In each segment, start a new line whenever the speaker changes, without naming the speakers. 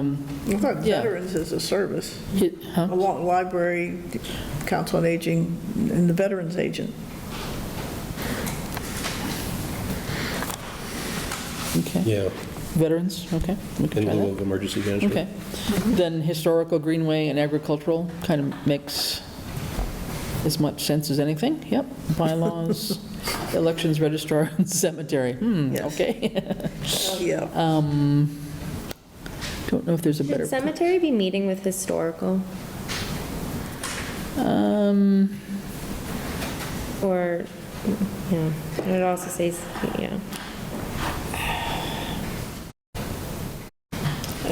I thought
Yeah.
veterans is a service,
It- Um, huh?
along library, council on aging, and the veterans agent.
Okay.
Yeah,
Veterans, okay, we can
in
try
lieu
that.
of emergency management.
Okay. Then historical, greenway, and agricultural kind of makes as much sense as anything, yep. Bylaws, elections, registrar, and cemetery, hmm,
Yes.
okay.
Uh,
Um,
Yeah,
Don't know if there's a better.
Should cemetery be meeting with historical
Um,
or, yeah, and it also says, yeah,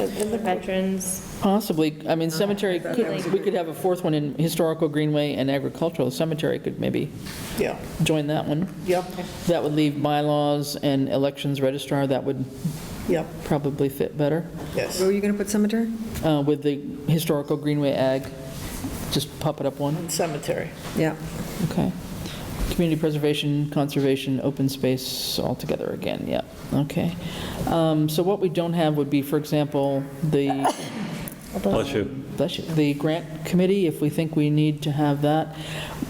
veterans.
Possibly, I mean, cemetery,
was a
could- we could have a fourth one in historical, greenway, and agricultural. Cemetery could maybe
yeah,
join that one.
yeah,
That would leave bylaws and elections, registrar, that would
yeah,
probably fit better.
yes.
Where were you going to put cemetery?
uh, with the historical Greenway Ag, just pop it up one,
Cemetery,
Yeah.
okay. Community preservation, conservation, open space all together again, yeah, okay. Um, So what we don't have would be, for example, the,
Bless you.
bless you, the grant committee, if we think we need to have that.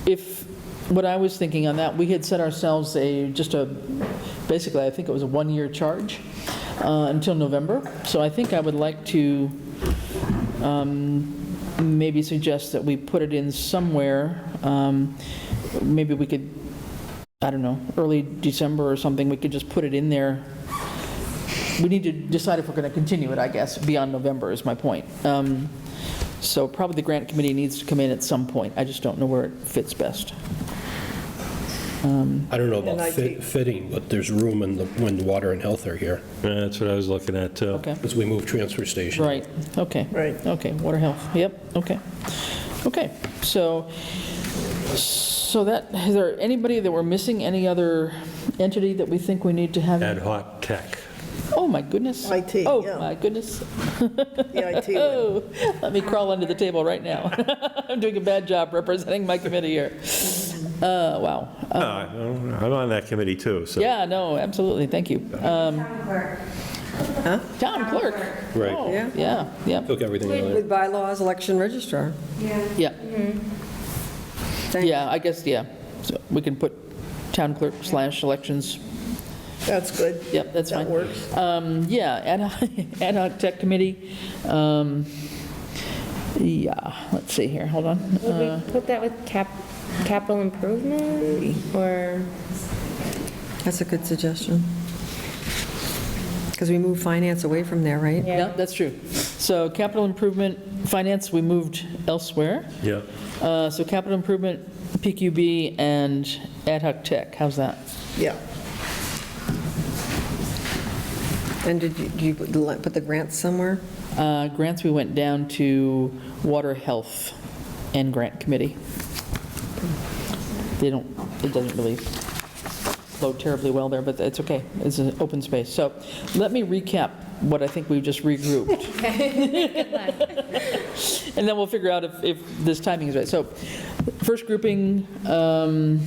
If, what I was thinking on that, we had set ourselves a, just a, basically, I think it was a one-year charge uh, until November, so I think I would like to maybe suggest that we put it in somewhere. um, Maybe we could, I don't know, early December or something, we could just put it in there. We need to decide if we're going to continue it, I guess, beyond November is my point. Um, So probably the grant committee needs to come in at some point. I just don't know where it fits best.
I don't know about
And
fit-
IT.
fitting, but there's room in the, when the water and health are here,
Yeah, That's what I was looking at, too.
Okay,
as we move transfer station.
right, okay.
right.
Okay, water health, yep, okay. Okay, so, so that, is there anybody that we're missing, any other entity that we think we need to
Ad
have?
hoc tech.
Oh, my goodness.
IT, yeah.
Oh, my goodness.
The IT one.
Oh, let me crawl under the table right now. I'm doing a bad job representing my committee here. Uh, wow. Uh,
I'm on that committee, too, so.
Yeah, no, absolutely, thank you. Um, Town clerk.
Right.
Oh,
Yeah.
Yeah, yeah,
Took everything earlier.
With bylaws, election registrar.
yeah.
Thank-
Yeah, I guess, yeah. So we can put town clerk slash elections.
That's good.
Yep, that's
That
fine.
works.
Um, Yeah, ad hoc- ad hoc tech committee. Um, Yeah, let's see here, hold on.
Would we put that with cap, capital improvement or,
That's a good suggestion. Because we moved finance away from there, right?
Yeah, that's true. So capital improvement, finance, we moved elsewhere.
Yeah.
Uh, So capital improvement, PQB, and ad hoc tech, how's that?
Yeah,
And did you- do you put the- put the grants somewhere?
Uh, Grants, we went down to water health and grant committee. They don't, it doesn't really flow terribly well there, but it's okay. It's an open space. So let me recap what I think we've just regrouped. And then we'll figure out if, if this timing is right. So first grouping, um,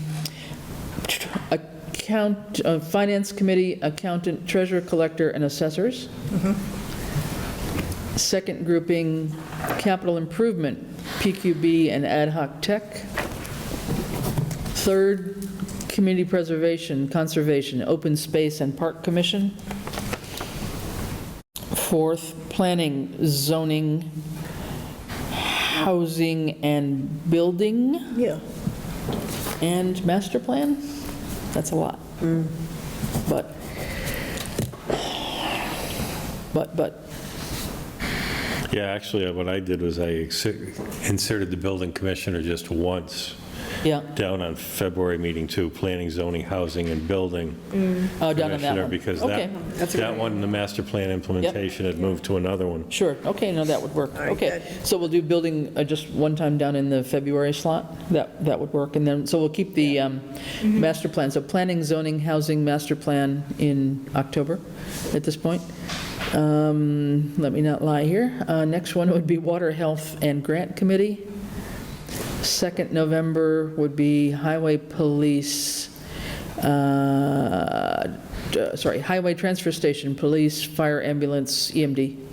account, uh, finance committee, accountant, treasurer, collector, and assessors. Second grouping, capital improvement, PQB and ad hoc tech. Third, community preservation, conservation, open space and park commission. Fourth, planning, zoning, housing and building,
yeah.
and master plan. That's a lot. But, but, but,
Yeah, actually, what I did was I exi- inserted the building commissioner just once,
yeah,
down on February meeting, too, planning, zoning, housing, and building.
oh, down on that
commissioner,
one.
Because
Okay.
that, that one, the master plan implementation had moved to another one.
Sure, okay, no, that would work,
right,
okay. So we'll do building uh, just one time down in the February slot, that, that would work, and then, so we'll keep the um, master plan, so planning, zoning, housing, master plan in October at this point. Um, Let me not lie here. Uh, Next one would be water, health, and grant committee. Second November would be highway police, uh, d- sorry, highway transfer station, police, fire ambulance, EMD.